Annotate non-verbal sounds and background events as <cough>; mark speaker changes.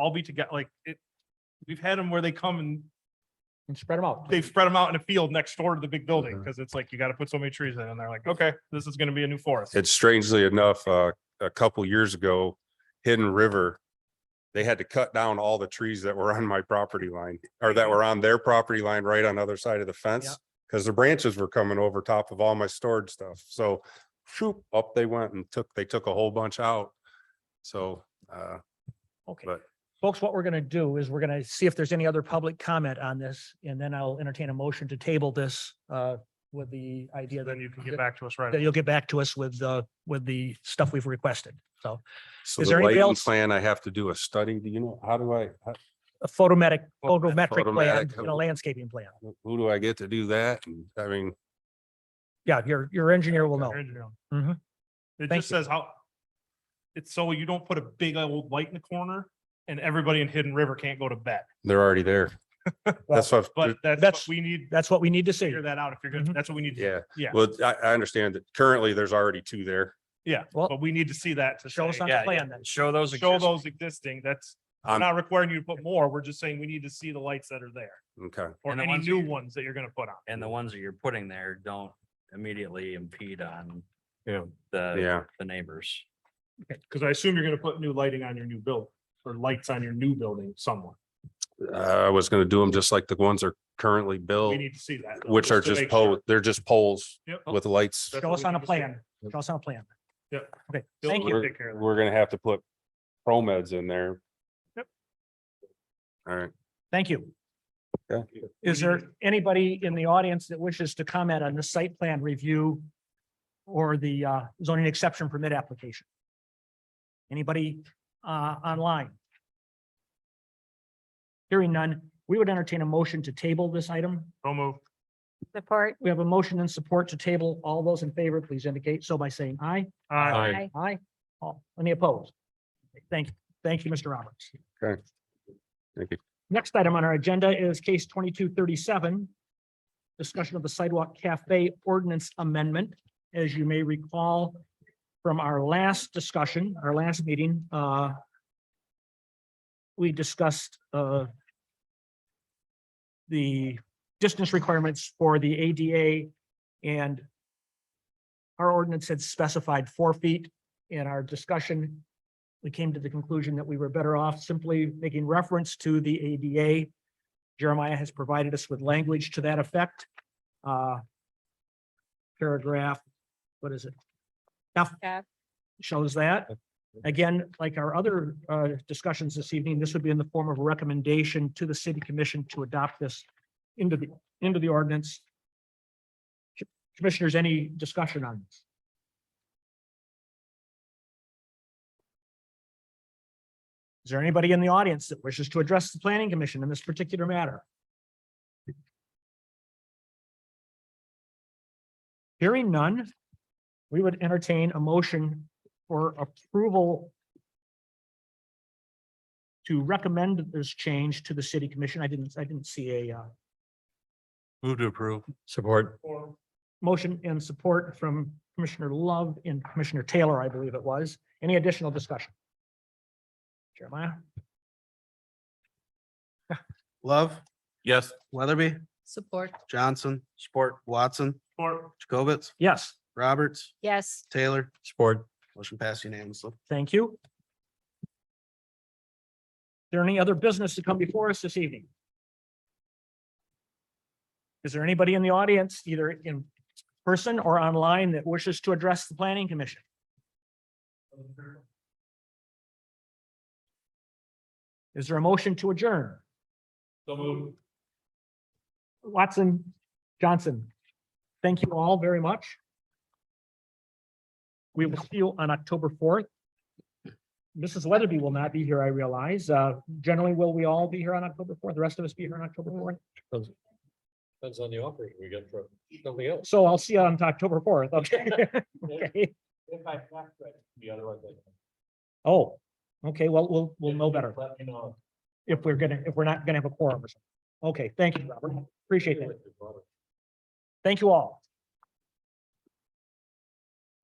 Speaker 1: all be together, like it. We've had them where they come and
Speaker 2: and spread them out.
Speaker 1: they've spread them out in a field next door to the big building,
Speaker 2: Mm-hmm.
Speaker 3: Mhm.
Speaker 1: because it's like, you gotta put so many trees in, and they're like, okay, this is gonna be a new forest.
Speaker 3: And strangely enough, uh, a couple years ago, Hidden River, they had to cut down all the trees that were on my property line or that were on their property line right on the other side of the
Speaker 2: Yeah.
Speaker 3: fence. Cause the branches were coming over top of all my storage stuff. So shoop, up they went and took, they took a whole bunch out. So, uh,
Speaker 2: Okay.
Speaker 3: but-
Speaker 2: Folks, what we're gonna do is we're gonna see if there's any other public comment on this, and then I'll entertain a motion to table this uh with the idea that
Speaker 1: Then you can get back to us right.
Speaker 2: that you'll get back to us with the, with the stuff we've requested. So
Speaker 3: so
Speaker 2: Is
Speaker 3: the
Speaker 2: there anybody
Speaker 3: lighting
Speaker 2: else?
Speaker 3: plan, I have to do a study. Do you know, how do I, how-
Speaker 2: a photometric, photometric plan
Speaker 3: Photometric.
Speaker 2: and a landscaping plan.
Speaker 3: who do I get to do that? And I mean,
Speaker 2: Yeah, your, your engineer will know.
Speaker 1: Your engineer will-
Speaker 2: Mhm.
Speaker 1: It
Speaker 2: Thank
Speaker 1: just
Speaker 2: you.
Speaker 1: says how. It's so you don't put a big old light in the corner and everybody in Hidden River can't go to bed,
Speaker 3: they're
Speaker 2: <laughs>
Speaker 3: already there. That's what,
Speaker 1: but that's, what
Speaker 2: That's-
Speaker 1: we need to
Speaker 2: That's what we need to see.
Speaker 1: figure that out if you're gonna,
Speaker 2: Mhm.
Speaker 1: that's what we need. to-
Speaker 3: yeah.
Speaker 1: Yeah,
Speaker 3: Well, I, I understand that currently there's already two there.
Speaker 1: yeah,
Speaker 2: Well-
Speaker 1: but we need to see that to
Speaker 2: Show
Speaker 1: show,
Speaker 2: us on
Speaker 4: yeah,
Speaker 2: the
Speaker 4: yeah.
Speaker 2: plan then.
Speaker 4: Show those.
Speaker 1: show
Speaker 4: exist-
Speaker 1: those existing, that's. We're
Speaker 3: Um,
Speaker 1: not requiring you to put more, we're just saying we need to see the lights that are there,
Speaker 3: Okay.
Speaker 1: or
Speaker 4: And the
Speaker 1: any
Speaker 4: ones
Speaker 1: new
Speaker 4: you-
Speaker 1: ones that you're gonna put on.
Speaker 4: And the ones that you're putting there don't immediately impede on
Speaker 3: Yeah.
Speaker 1: Uh,
Speaker 4: the,
Speaker 3: Yeah,
Speaker 4: the neighbors.
Speaker 1: Cause I assume you're gonna put new lighting on your new build, or lights on your new building somewhere,
Speaker 3: Uh, I was gonna do them just like the ones are currently
Speaker 1: we
Speaker 3: built,
Speaker 1: need to see that. though,
Speaker 3: which are
Speaker 1: to
Speaker 3: just
Speaker 1: make sure.
Speaker 3: poles, they're just poles
Speaker 1: Yep.
Speaker 3: with lights.
Speaker 1: That's
Speaker 2: Show
Speaker 1: what
Speaker 2: us
Speaker 1: we
Speaker 2: on a
Speaker 1: need to see.
Speaker 2: plan. Show us on a plan.
Speaker 1: Yep.
Speaker 2: Okay,
Speaker 1: Bill
Speaker 2: thank
Speaker 1: will
Speaker 2: you.
Speaker 3: We're
Speaker 1: take care of that.
Speaker 3: we're gonna have to put pro meds in there.
Speaker 1: Yep.
Speaker 3: All right.
Speaker 2: Thank you.
Speaker 3: Okay.
Speaker 2: Is
Speaker 1: We need
Speaker 2: there anybody in the audience that wishes to comment on the site plan review or the uh, zoning exception permit application? Anybody uh, online? Hearing none, we would entertain a motion to table this item.
Speaker 1: So moved.
Speaker 5: Support.
Speaker 2: We have a motion and support to table. All those in favor, please indicate so by saying aye.
Speaker 1: Aye.
Speaker 5: Aye.
Speaker 2: Aye. All, any opposed? Thank, thank you, Mr. Roberts.
Speaker 3: Okay. Thank you.
Speaker 2: Next item on our agenda is case twenty-two thirty-seven. Discussion of the sidewalk cafe ordinance amendment. As you may recall from our last discussion, our last meeting, uh, we discussed, uh, the distance requirements for the ADA and our ordinance had specified four feet in our discussion. We came to the conclusion that we were better off simply making reference to the ADA. Jeremiah has provided us with language to that effect. Uh, Paragraph, what is it? F
Speaker 5: F.
Speaker 2: shows that. Again, like our other uh, discussions this evening, this would be in the form of a recommendation to the city commission to adopt this into the, into the ordinance. Commissioners, any discussion on this? Is there anybody in the audience that wishes to address the planning commission in this particular matter? Hearing none, we would entertain a motion for approval to recommend this change to the city commission. I didn't, I didn't see a uh,
Speaker 3: Move to approve. Support.
Speaker 2: Motion and support from Commissioner Love and Commissioner Taylor, I believe it was. Any additional discussion? Jeremiah?
Speaker 6: Love,
Speaker 4: Yes.
Speaker 6: Weatherby,
Speaker 5: Support.
Speaker 6: Johnson,
Speaker 4: Support.
Speaker 6: Watson,
Speaker 1: Or
Speaker 6: Jacobitz,
Speaker 2: Yes,
Speaker 6: Roberts,
Speaker 5: Yes.
Speaker 6: Taylor.
Speaker 3: Support.
Speaker 6: Motion passed unanimously.
Speaker 2: thank you. Is There any other business to come before us this evening? Is there anybody in the audience, either in person or online, that wishes to address the planning commission? Is there a motion to adjourn?
Speaker 1: so moved.
Speaker 2: Watson, Johnson, thank you all very much. We will see you on October fourth. Mrs. Weatherby will not be here, I realize. Uh, generally, will we all be here on October fourth? The rest of us be here on October fourth?
Speaker 7: Depends on the operator we get from something else.
Speaker 2: So I'll see you on October
Speaker 7: <laughs>
Speaker 2: fourth, okay? Okay.
Speaker 7: If I have to, the other one.
Speaker 2: Oh, okay, well, we'll, we'll know better
Speaker 7: Let me know.
Speaker 2: if we're gonna, if we're not gonna have a quorum or something. Okay, thank you, Robert. Appreciate that. Thank you all.